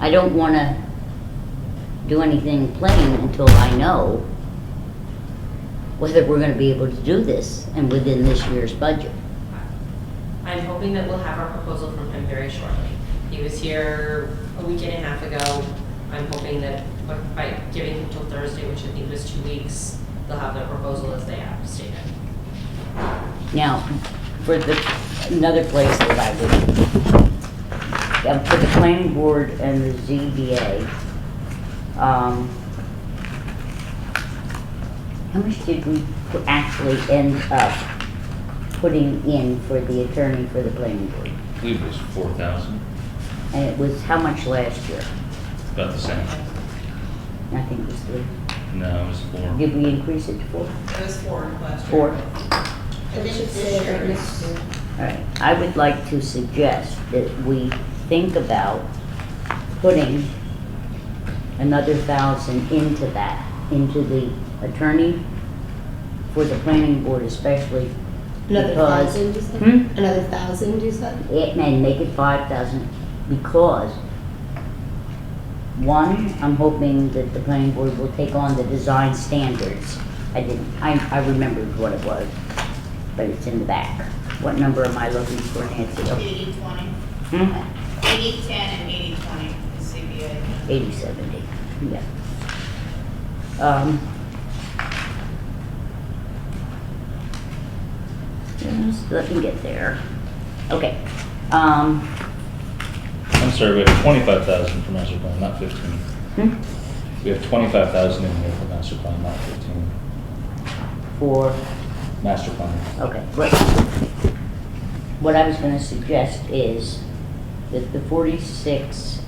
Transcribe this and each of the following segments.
I don't wanna do anything plain until I know whether we're gonna be able to do this and within this year's budget. I'm hoping that we'll have our proposal from him very shortly. He was here a week and a half ago. I'm hoping that by- by giving him till Thursday, which I think was two weeks, they'll have their proposal as they have stated. Now, for the, another place that I would, yeah, for the planning board and the ZBA, um, how much did we pu- actually end up putting in for the attorney for the planning board? I believe it was four thousand, And it was how much last year? about the same. I think it was three. No, it was four. Did we increase it to four? It was four last year. Four? I think this year it's- Alright, I would like to suggest that we think about putting another thousand into that, into the attorney for the planning board especially. Another because- thousand, you said? Hmm? Another thousand, you said? It may make it five thousand because, one, I'm hoping that the planning board will take on the design standards. I didn't, I, I remembered what it was, but it's in the back. What number am I looking for, Nancy? Oh, Eighty twenty, hmm? eighty ten and eighty twenty is CBA. eighty seventy, yeah. Um. Just let me get there. Okay, um, I'm sorry, we have twenty-five thousand for master plan, not fifteen. hmm, We have twenty-five thousand in here for master plan, not fifteen. for, Master plan. okay, right. What I was gonna suggest is that the forty-six,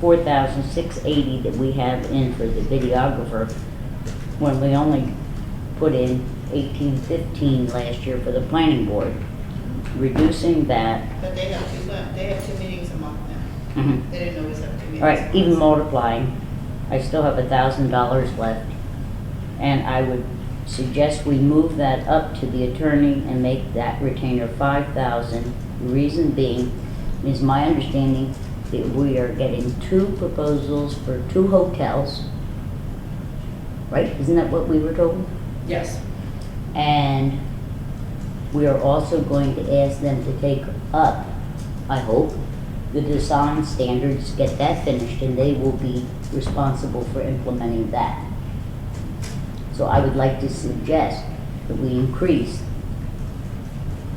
four thousand six eighty that we have in for the videographer, when we only put in eighteen fifteen last year for the planning board, reducing that, But they have two, mon- they have two meetings a month now. mhm, They didn't always have two meetings. All right, a even month. multiplying, I still have a thousand dollars left. And I would suggest we move that up to the attorney and make that retainer five thousand. Reason being is my understanding that we are getting two proposals for two hotels. Right, isn't that what we were told? Yes. And we are also going to ask them to take up, I hope, the design standards, get that finished, and they will be responsible for implementing that. So I would like to suggest that we increase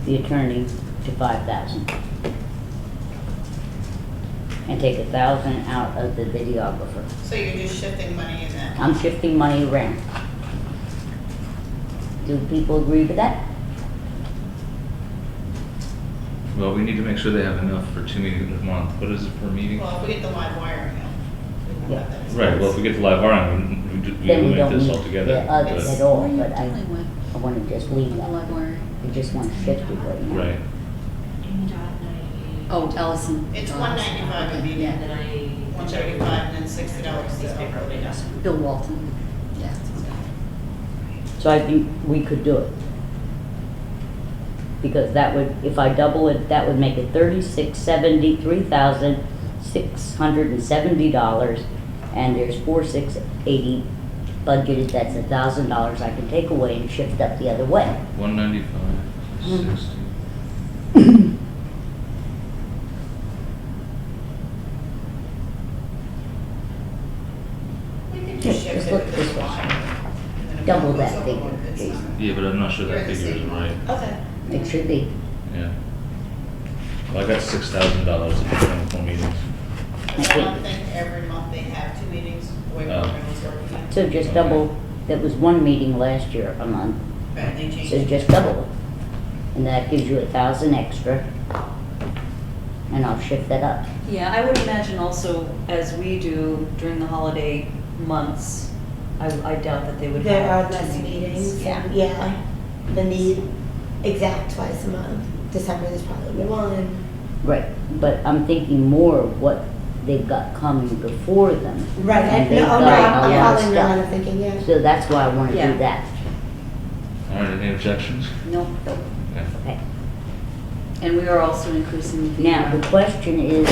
the attorney to five thousand. And take a thousand out of the videographer. So you're just shifting money in that. I'm shifting money around. Do people agree with that? Well, we need to make sure they have enough for two meetings a month. What is it per meeting? Well, if we get the live wire now, we won't have that. Right, well, if we get to live wiring, we- we do- Then we we eliminate don't this need altogether. the others but- at all, but I, I wanna just leave that. I just want fifty right now. Right. Oh. Ellison. It's one ninety-five a meeting, And then I. one thirty-five and then sixty dollars. These paper only does. Bill Walton. Yeah. So I think we could do it. Because that would, if I double it, that would make it thirty-six seventy, three thousand, six hundred and seventy dollars. And there's four six eighty budgeted, that's a thousand dollars I can take away and shift up the other way. One ninety-five, Mm. sixty. We can Yeah, just shift just it look to this the way. wire. And if Double it goes that over figure, one, it's please. not- Yeah, but I'm not sure You're that at the figure is same right. line. Okay. It should be. Yeah. Well, I got six thousand dollars in twenty-four meetings. But I don't think every month they have two meetings, the way Oh. we're going to work. it. So just double, that was one meeting last year a month, But they change so it. just double it. And that gives you a thousand extra. And I'll shift that up. Yeah, I would imagine also, as we do during the holiday months, I I doubt that they would There are have less two meetings, meetings. yeah, yeah, than the exact twice a month. December is probably one. Right, but I'm thinking more of what they've got coming before them. Right, And I- they've no, oh, no, got a I'm I'm lot of following your line of stuff. thinking, yeah. So that's why I wanna Yeah. do that. All right, any objections? No, Okay. Okay. and we are also increasing the. Now, the question is,